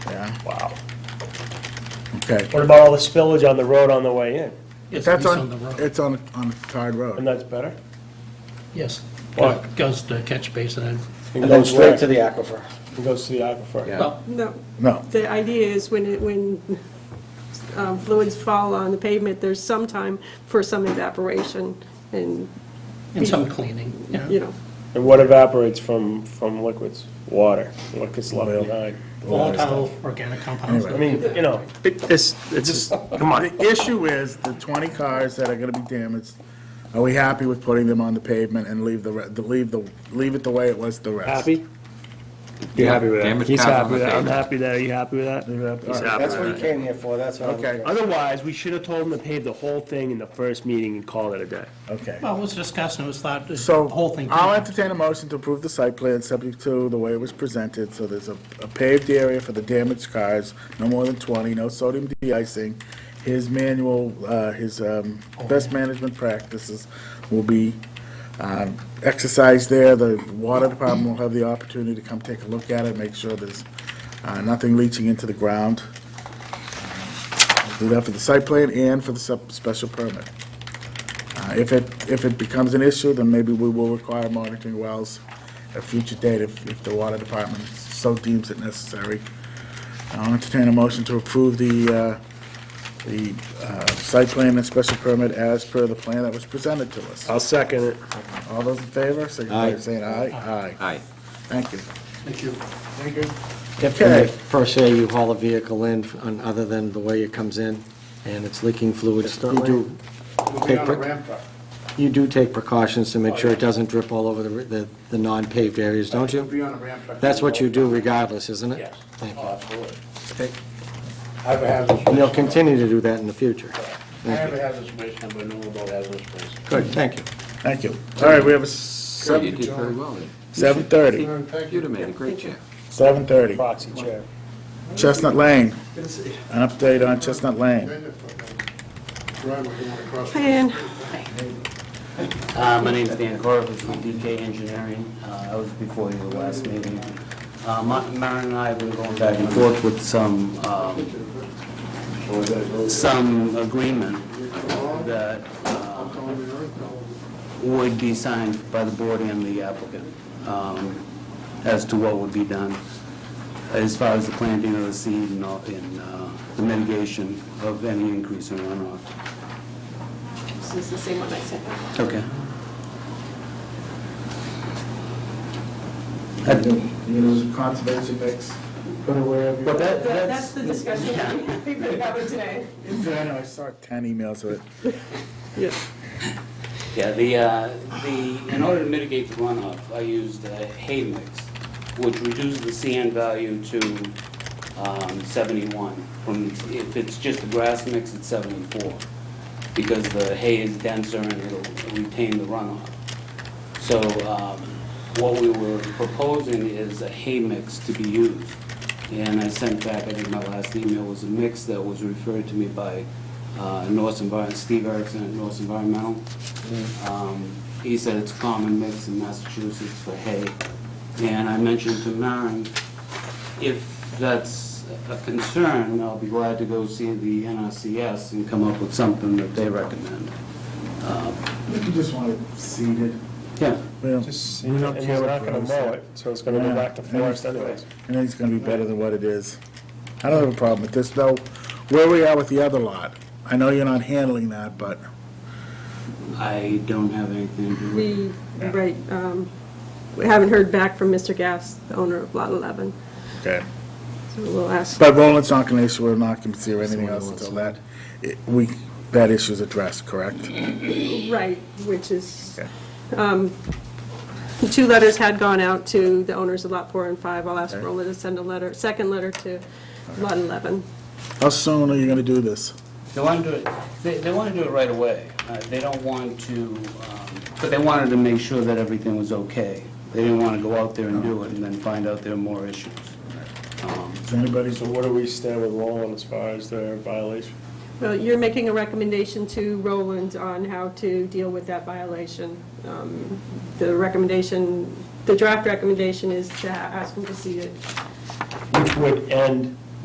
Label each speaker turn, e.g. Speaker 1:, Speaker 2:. Speaker 1: Okay.
Speaker 2: What about all the spillage on the road on the way in?
Speaker 3: Yes,
Speaker 1: That's
Speaker 3: it's on the
Speaker 1: on,
Speaker 3: road.
Speaker 1: it's on, on Tide
Speaker 2: And
Speaker 1: Road.
Speaker 2: that's better?
Speaker 3: Yes.
Speaker 2: Why?
Speaker 3: Goes to catch basin and,
Speaker 2: It
Speaker 4: And then
Speaker 2: goes where?
Speaker 4: straight to the aquifer.
Speaker 2: It goes to the aquifer.
Speaker 4: Yeah.
Speaker 3: well,
Speaker 5: No,
Speaker 1: No,
Speaker 5: the idea is when it, when um, fluids fall on the pavement, there's some time for some evaporation and,
Speaker 3: and some cleaning, yeah.
Speaker 5: you know,
Speaker 2: And what evaporates from, from liquids? Water, what gets left behind?
Speaker 3: Volatile organic compounds.
Speaker 2: I mean, you know,
Speaker 1: It- It's, it's, come on, the issue is the 20 cars that are going to be damaged, are we happy with putting them on the pavement and leave the, re- the- leave the, leave it the way it was the rest?
Speaker 2: happy?
Speaker 6: You happy with that?
Speaker 2: He's happy with that, I'm happy with that, are you happy with that? He's happy.
Speaker 4: That's what you came here for, that's what I'm
Speaker 1: Okay.
Speaker 2: Otherwise, we should have told him to pave the whole thing in the first meeting and call it a day.
Speaker 1: Okay.
Speaker 3: Well, it was discussed and it was thought, the
Speaker 1: So
Speaker 3: whole thing.
Speaker 1: I'll entertain a motion to approve the site plan subject to the way it was presented. So there's a a paved area for the damaged cars, no more than 20, no sodium de-icing. His manual, uh, his um,
Speaker 3: Oh.
Speaker 1: best management practices will be um, exercised there. The water department will have the opportunity to come take a look at it, make sure there's uh, nothing leaching into the ground. We'll Do that for the site plan and for the sup- special permit. Uh, If it, if it becomes an issue, then maybe we will require monitoring wells at a future date if, if the water department so deems it necessary. I'll entertain a motion to approve the, uh, the uh, site plan and special permit as per the plan that was presented to us.
Speaker 2: I'll second it.
Speaker 1: All those in favor, signify by
Speaker 4: Aye.
Speaker 1: saying aye. Aye.
Speaker 6: Aye.
Speaker 1: Thank you.
Speaker 3: Thank you.
Speaker 1: Thank you.
Speaker 4: If,
Speaker 1: Okay.
Speaker 4: if per se, you haul a vehicle in, on- other than the way it comes in, and it's leaking fluids, you do, be on a ramp you do take precautions to make sure it doesn't drip all over the, the, the non-paved areas, don't you?
Speaker 7: on a ramp truck.
Speaker 4: That's what you do regardless, isn't it?
Speaker 7: Yes.
Speaker 4: Thank
Speaker 7: Oh,
Speaker 4: you.
Speaker 7: absolutely. I have a hazardous
Speaker 4: And you'll
Speaker 7: waste number.
Speaker 4: continue to do that in the future.
Speaker 7: I have a hazardous waste number, I know about hazardous waste.
Speaker 4: Good, thank you.
Speaker 1: Thank you. All right, we have a
Speaker 6: Good, You
Speaker 1: seven,
Speaker 6: did very well then.
Speaker 1: seven thirty,
Speaker 6: You'd have made a great chair.
Speaker 1: seven thirty.
Speaker 2: Proxy chair.
Speaker 1: Chestnut Lane. An update on Chestnut Lane.
Speaker 5: plan.
Speaker 8: Uh, My name's Dan Corvus with DK Engineering. Uh, I was before you the last meeting. Uh, Ma- Maren and I have been going back and forth with some, um, some agreement that uh, would be signed by the board and the applicant um, as to what would be done as far as the planting of the seed and all- and uh, the mitigation of any increase in runoff.
Speaker 5: This is the same one I sent out.
Speaker 8: Okay.
Speaker 1: Use conservation mix. Put away every.
Speaker 8: But that,
Speaker 5: That's
Speaker 8: that's,
Speaker 5: the discussion we've been having today.
Speaker 1: I know, I saw ten emails of it.
Speaker 8: yeah, the, uh, the, in order to mitigate the runoff, I used uh, hay mix, which reduces the CN value to um, 71. From, if it's just a grass mix, it's 74, because the hay is denser and it'll retain the runoff. So um, what we were proposing is a hay mix to be used. And I sent back, I think my last email was a mix that was referred to me by uh, North Environment, Steve Erickson at North Environmental. Um, He said it's a common mix in Massachusetts for hay. And I mentioned to Maren, if that's a concern, I'll be glad to go see the NRCS and come up with something that they recommend.
Speaker 1: You just want it seeded.
Speaker 8: Yeah.
Speaker 1: Well,
Speaker 2: Just,
Speaker 1: we
Speaker 2: and
Speaker 1: don't care what
Speaker 2: we're not gonna
Speaker 1: grows
Speaker 2: mow
Speaker 1: there.
Speaker 2: it, so it's gonna go back to forest anyways.
Speaker 1: And it's gonna be better than what it is. I don't have a problem with this, though, where we are with the other lot. I know you're not handling that, but
Speaker 8: I don't have anything to do with
Speaker 5: We, right, um, we haven't heard back from Mr. Gass, the owner of Lot 11,
Speaker 1: Okay.
Speaker 5: so we'll ask.
Speaker 1: But Roland's not gonna issue an occupancy or anything else until that, it- we, that issue's addressed, correct?
Speaker 5: Right, which is,
Speaker 1: Okay.
Speaker 5: um, the two letters had gone out to the owners of Lot 4 and 5. I'll ask
Speaker 1: Okay.
Speaker 5: Roland to send a letter, second letter to Lot 11.
Speaker 1: How soon are you gonna do this?
Speaker 8: They want to do it, they, they want to do it right away. Uh, They don't want to, um, but they wanted to make sure that everything was okay. They didn't want to go out there and do it and then find out there are more issues. Um,
Speaker 1: Is anybody,
Speaker 2: So where do we stand with Roland as far as their violation?
Speaker 5: Well, you're making a recommendation to Roland on how to deal with that violation. Um, The recommendation, the draft recommendation is to ask him to see it.
Speaker 2: Which would end